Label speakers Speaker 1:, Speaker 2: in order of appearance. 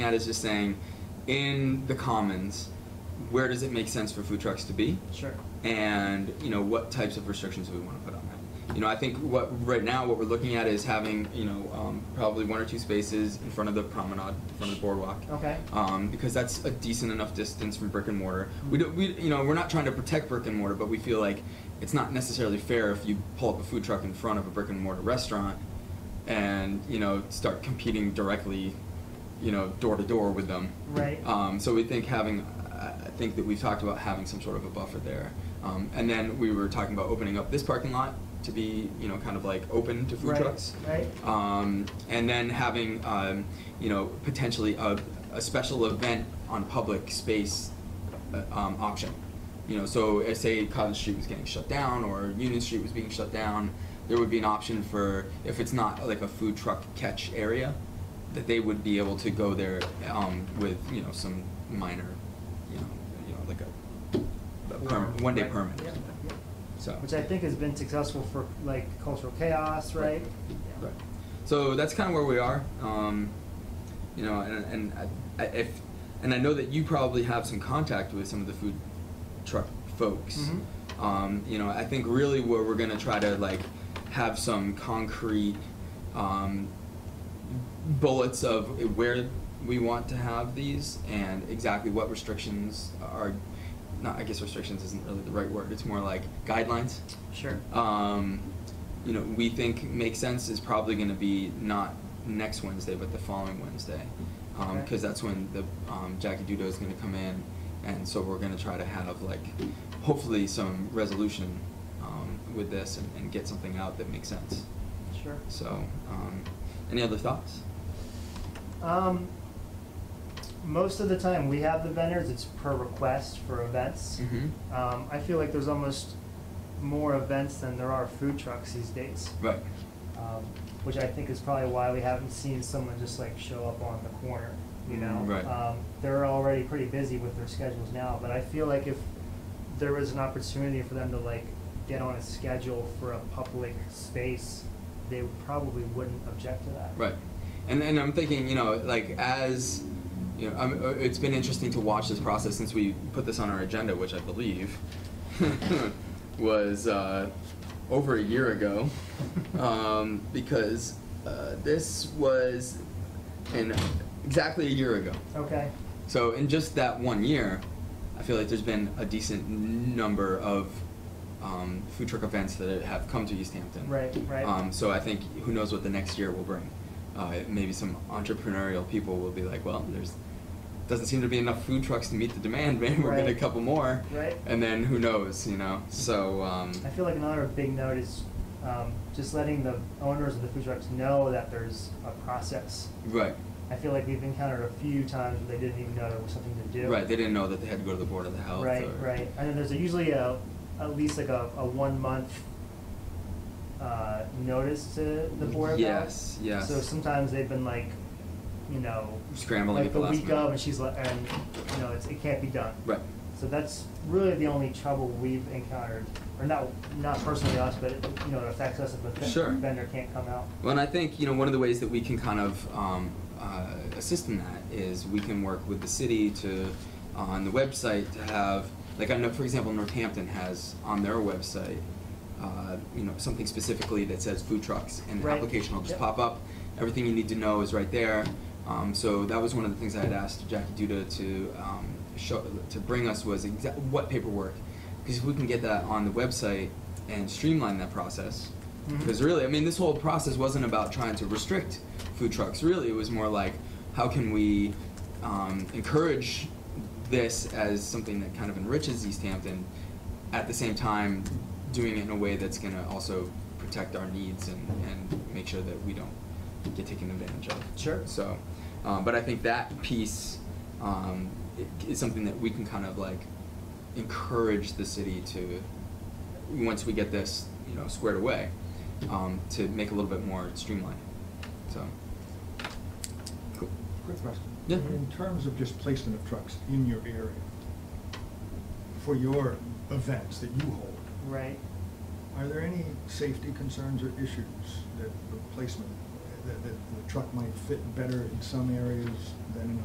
Speaker 1: that is just saying, in the commons, where does it make sense for food trucks to be?
Speaker 2: Sure.
Speaker 1: and you know what types of restrictions do we want to put on that. You know, I think what right now what we're looking at is having you know um, probably one or two spaces in front of the promenade, in front of the boardwalk,
Speaker 2: Okay.
Speaker 1: um, because that's a decent enough distance from brick and mortar. We don't, we you know we're not trying to protect brick and mortar, but we feel like it's not necessarily fair if you pull up a food truck in front of a brick and mortar restaurant, and you know start competing directly, you know door to door with them.
Speaker 2: Right.
Speaker 1: Um, so we think having, I I think that we've talked about having some sort of a buffer there. Um, and then we were talking about opening up this parking lot to be, you know, kind of like open to food
Speaker 2: right.
Speaker 1: trucks.
Speaker 2: Right.
Speaker 1: Um, and then having, um, you know, potentially a, a special event on public space uh, um, option. You know, so if, say Cottage Street was getting shut down or Union Street was being shut down, there would be an option for if it's not like a food truck catch area, that they would be able to go there um, with you know some minor, you know, you know like a, a perm- one day
Speaker 2: Right.
Speaker 1: permit.
Speaker 2: Yeah,
Speaker 1: Or something.
Speaker 2: yeah.
Speaker 1: So
Speaker 2: Which I think has been successful for like cultural chaos, right?
Speaker 1: Right.
Speaker 2: Yeah.
Speaker 1: Right. So that's kind of where we are. Um, you know, and, and I, I, if and I know that you probably have some contact with some of the food truck folks.
Speaker 2: Mhm.
Speaker 1: Um, you know, I think really where we're gonna try to like have some concrete um, bullets of where we want to have these and exactly what restrictions are. Not, I guess restrictions isn't really the right word. It's more like guidelines
Speaker 2: Sure.
Speaker 1: um, you know, we think makes sense is probably going to be not next Wednesday, but the following Wednesday, because
Speaker 2: Okay.
Speaker 1: that's when the um, Jackie Dudo is going to come in, and so we're going to try to have like, hopefully, some resolution um, with this and, and get something out that makes sense.
Speaker 2: Sure.
Speaker 1: So, um, any other thoughts?
Speaker 2: Um, most of the time we have the vendors, it's per request for events.
Speaker 1: Mm-hmm.
Speaker 2: Um, I feel like there's almost more events than there are food trucks these days.
Speaker 1: Right.
Speaker 2: um, which I think is probably why we haven't seen someone just like show up on the corner, you know?
Speaker 1: Mm, right.
Speaker 2: Um, they're already pretty busy with their schedules now, but I feel like if there was an opportunity for them to like get on a schedule for a public space, they probably wouldn't object to that.
Speaker 1: Right. And and I'm thinking, you know, like as you know, I'm, uh, it's been interesting to watch this process since we put this on our agenda, which I believe was uh, over a year ago, um, because uh, this was in exactly a year ago.
Speaker 2: Okay,
Speaker 1: So in just that one year, I feel like there's been a decent number of um, food truck events that have come to East Hampton.
Speaker 2: right, right.
Speaker 1: Um, so I think who knows what the next year will bring. Uh, maybe some entrepreneurial people will be like, well, there's doesn't seem to be enough food trucks to meet the demand. Maybe we'll get a
Speaker 2: Right.
Speaker 1: couple more,
Speaker 2: Right.
Speaker 1: and then who knows, you know? So um,
Speaker 2: I feel like another big note is um, just letting the owners of the food trucks know that there's a process.
Speaker 1: right,
Speaker 2: I feel like we've encountered a few times where they didn't even know there was something to do.
Speaker 1: right. They didn't know that they had to go to the board of the health.
Speaker 2: Right,
Speaker 1: or-
Speaker 2: right. And then there's a- usually a, at least like a, a one month uh, notice to the board of health.
Speaker 1: Yes, yes.
Speaker 2: So sometimes they've been like, you know,
Speaker 1: Scrambling
Speaker 2: like
Speaker 1: at the last
Speaker 2: week of,
Speaker 1: minute.
Speaker 2: and she's like, and you know, it's, it can't be done.
Speaker 1: Right.
Speaker 2: So that's really the only trouble we've encountered, or not not personally us, but it, you know, it affects us if the ven-
Speaker 1: Sure.
Speaker 2: vendor can't come out.
Speaker 1: Well, and I think you know one of the ways that we can kind of um, uh, assist in that is we can work with the city to uh, on the website to have like I know for example Northampton has on their website uh, you know something specifically that says food trucks and the
Speaker 2: Right.
Speaker 1: application will just
Speaker 2: Yep.
Speaker 1: pop up. Everything you need to know is right there. Um, so that was one of the things I had asked Jackie Duda to um, show to bring us was exa- what paperwork because if we can get that on the website and streamline that process
Speaker 2: Mhm.
Speaker 1: because really, I mean, this whole process wasn't about trying to restrict food trucks. Really, it was more like how can we um, encourage this as something that kind of enriches East Hampton, at the same time doing it in a way that's going to also protect our needs and, and make sure that we don't get taken advantage of.
Speaker 2: Sure.
Speaker 1: So, um, but I think that piece um, i- is something that we can kind of like encourage the city to, once we get this, you know, squared away, um, to make a little bit more streamlined. So, cool.
Speaker 3: Quick question.
Speaker 1: Yeah.
Speaker 3: In terms of just placement of trucks in your area, for your events that you hold,
Speaker 2: Right.
Speaker 3: are there any safety concerns or issues that the placement, that, that the truck might fit better in some areas than in